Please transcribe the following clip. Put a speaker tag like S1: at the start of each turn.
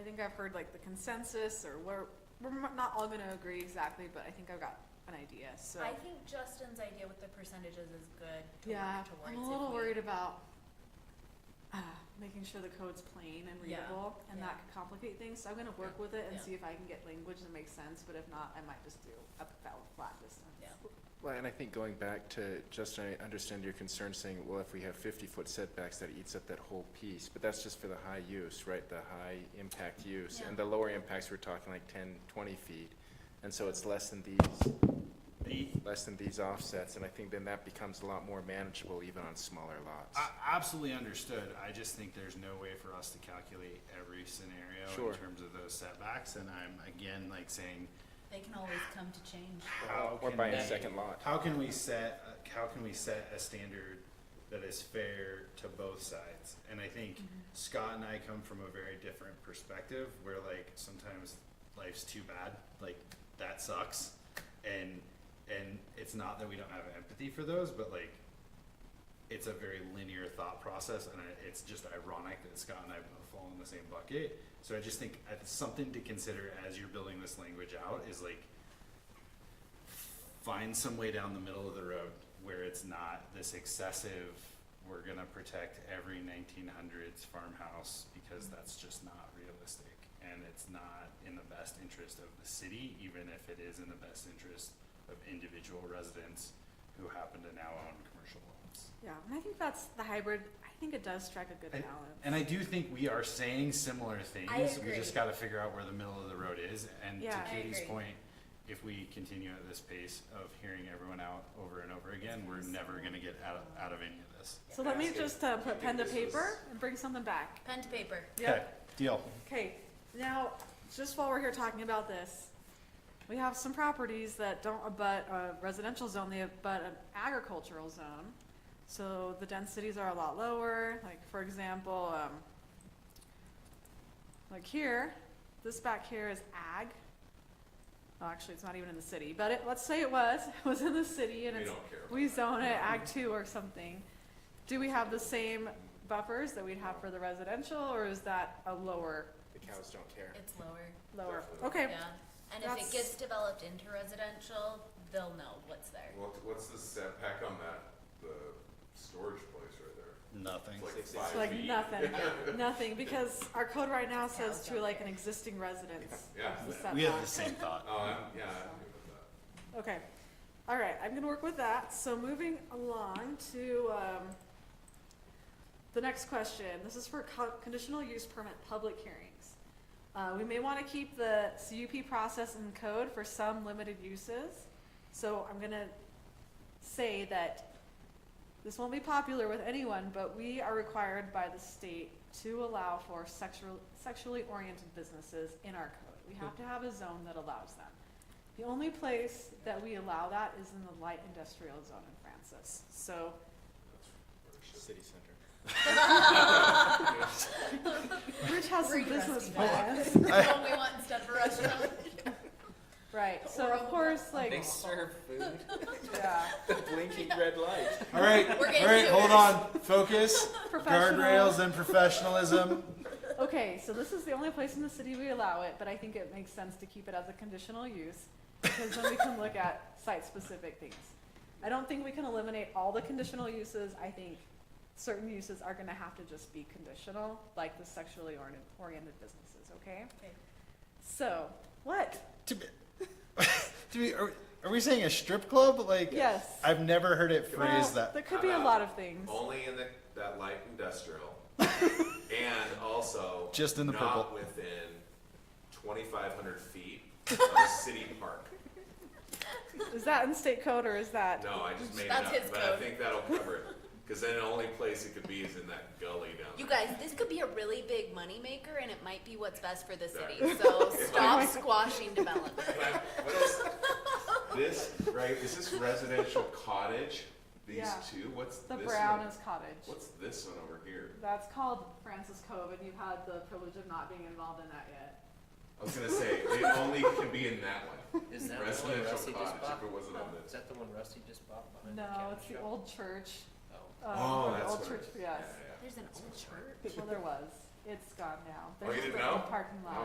S1: think I've heard like the consensus, or we're, we're m- not all gonna agree exactly, but I think I've got an idea, so.
S2: I think Justin's idea with the percentages is good to
S1: Yeah,
S2: work towards.
S1: I'm a
S2: if
S1: little
S2: we-
S1: worried about, uh, making sure the code's plain and
S2: Yeah,
S1: readable, and that
S2: yeah.
S1: could complicate things, so I'm gonna work with it and
S2: yeah.
S1: see if I can get language that makes sense, but if not, I might just do a flat, flat distance.
S2: Yeah.
S3: Well, and I think going back to, Justin, I understand your concern saying, well, if we have fifty-foot setbacks, that eats up that whole piece, but that's just for the high use, right, the high-impact use. And the lower impacts, we're talking like 10, 20 feet, and so it's less than these,
S4: The,
S3: less than these offsets, and I think then that becomes a lot more manageable even on smaller lots.
S4: I absolutely understood. I just think there's no way for us to calculate every scenario
S3: Sure.
S4: in terms of those setbacks, and I'm again like saying,
S2: They can always come to change.
S4: how
S3: Or
S4: can
S3: buying a
S4: we-
S3: second lot.
S4: How can we set, uh, how can we set a standard that is fair to both sides? And I think Scott and I come from a very different perspective, where like, sometimes life's too bad, like, that sucks. And, and it's not that we don't have empathy for those, but like, it's a very linear thought process, and I- it's just ironic that Scott and I both fall in the same bucket. So I just think it's something to consider as you're building this language out is like, find some way down the middle of the road where it's not this excessive, we're gonna protect every nineteen hundreds farmhouse because that's just not realistic. And it's not in the best interest of the city, even if it is in the best interest of individual residents who happen to now own commercial lots.
S1: Yeah, and I think that's the hybrid, I think it does strike a good
S4: I-
S1: balance.
S4: And I do think we are saying similar things. We
S2: agree.
S4: just gotta figure out where the middle of the road is, and to
S1: Yeah. I
S4: Katie's
S2: agree.
S4: point, if we continue at this pace of hearing everyone out over and over again, we're never gonna get out, out of any of this.
S1: So let me
S3: Ask if-
S1: just uh,
S3: do you
S1: put pen to
S3: think this was-
S1: paper and bring something back.
S2: Pen to paper.
S4: Okay, deal.
S1: Okay, now, just while we're here talking about this, we have some properties that don't abut a residential zone, they abut an agricultural zone. So the densities are a lot lower, like, for example, um, like here, this back here is ag. Oh, actually, it's not even in the city, but it, let's say it was, it was in the city and
S5: We
S1: it's,
S5: don't care.
S1: we zone it ag two or something. Do we have the same buffers that we'd have for the residential, or is that a lower,
S3: The cows don't care.
S2: It's lower.
S1: lower?
S5: Definitely.
S1: Okay,
S2: Yeah. And if
S1: That's-
S2: it gets developed into residential, they'll know what's there.
S5: What, what's the setback on that, the storage place right there?
S4: Nothing.
S5: It's like
S3: Six,
S5: five
S3: six.
S1: like
S5: feet.
S1: nothing,
S2: Yeah.
S1: nothing, because our code right now says
S2: Cows
S1: to
S2: don't
S1: like an
S2: care.
S1: existing residence.
S5: Yeah,
S1: is a
S4: We have the
S1: setback.
S4: same thought.
S5: oh, I'm, yeah, I'm good with that.
S1: Okay, all right, I'm gonna work with that, so moving along to, um, the next question, this is for co- conditional use permit public hearings. Uh, we may wanna keep the CUP process in code for some limited uses, so I'm gonna say that this won't be popular with anyone, but we are required by the state to allow for sexual, sexually oriented businesses in our code. We have to have a zone that allows them. The only place that we allow that is in the light industrial zone in Francis. So,
S3: City center.
S1: Rich has some
S2: We're
S1: business
S2: interesting.
S1: plans.
S2: What we want instead of a restaurant.
S1: Right, so
S2: Or
S1: of
S2: on the
S1: course, like,
S3: They serve food,
S1: yeah,
S3: the blinking red light.
S4: All right, all
S2: We're getting
S4: right, hold on, focus, guardrails
S1: professional.
S4: and professionalism.
S1: Okay, so this is the only place in the city we allow it, but I think it makes sense to keep it as a conditional use, because then we can look at site-specific things. I don't think we can eliminate all the conditional uses, I think certain uses are gonna have to just be conditional, like the sexually orient- oriented businesses, okay?
S2: Okay.
S1: So, what?
S4: To be, to be, are, are we saying a strip club? Like,
S1: Yes.
S4: I've never heard it
S1: Well,
S4: phrased that.
S1: There could be a
S5: I'm out.
S1: lot of things.
S5: Uh, Only in the, that light industrial, and also.
S4: Just in the
S5: Not
S4: purple.
S5: within twenty-five hundred feet of a city park.
S1: Is that in state code or is that?
S5: No, I just made it
S2: That's
S5: up,
S2: his
S5: but I
S2: code.
S5: think that'll cover it, cause then the only place it could be is in that gully down
S2: You
S5: there.
S2: guys, this could be a really big moneymaker and it might be what's best for the city.
S5: Sorry.
S2: So stop squashing development.
S5: Can I- what is- This, right, is this residential cottage, these
S1: Yeah.
S5: two, what's this
S1: The
S5: one?
S1: brown is cottage.
S5: What's this one over here?
S1: That's called Francis Cove and you've had the privilege of not being involved in that yet.
S5: I was gonna say, it only can be in that one,
S6: Is that the one Rusty
S5: residential
S6: just
S5: cottage, if
S6: bought?
S5: it wasn't on
S6: Is
S5: this.
S6: that the one Rusty just bought behind the
S1: No,
S6: camera
S1: it's the
S6: shop?
S1: old church.
S6: Oh.
S1: um,
S5: Oh,
S1: or the
S5: that's
S1: Old
S5: what it
S1: church,
S5: is.
S1: yes.
S5: Yeah, yeah, yeah.
S2: There's an old church.
S1: Well, there was. It's gone now.
S5: Oh, you
S1: There's
S5: didn't
S1: the old
S5: know?
S1: Parking lot.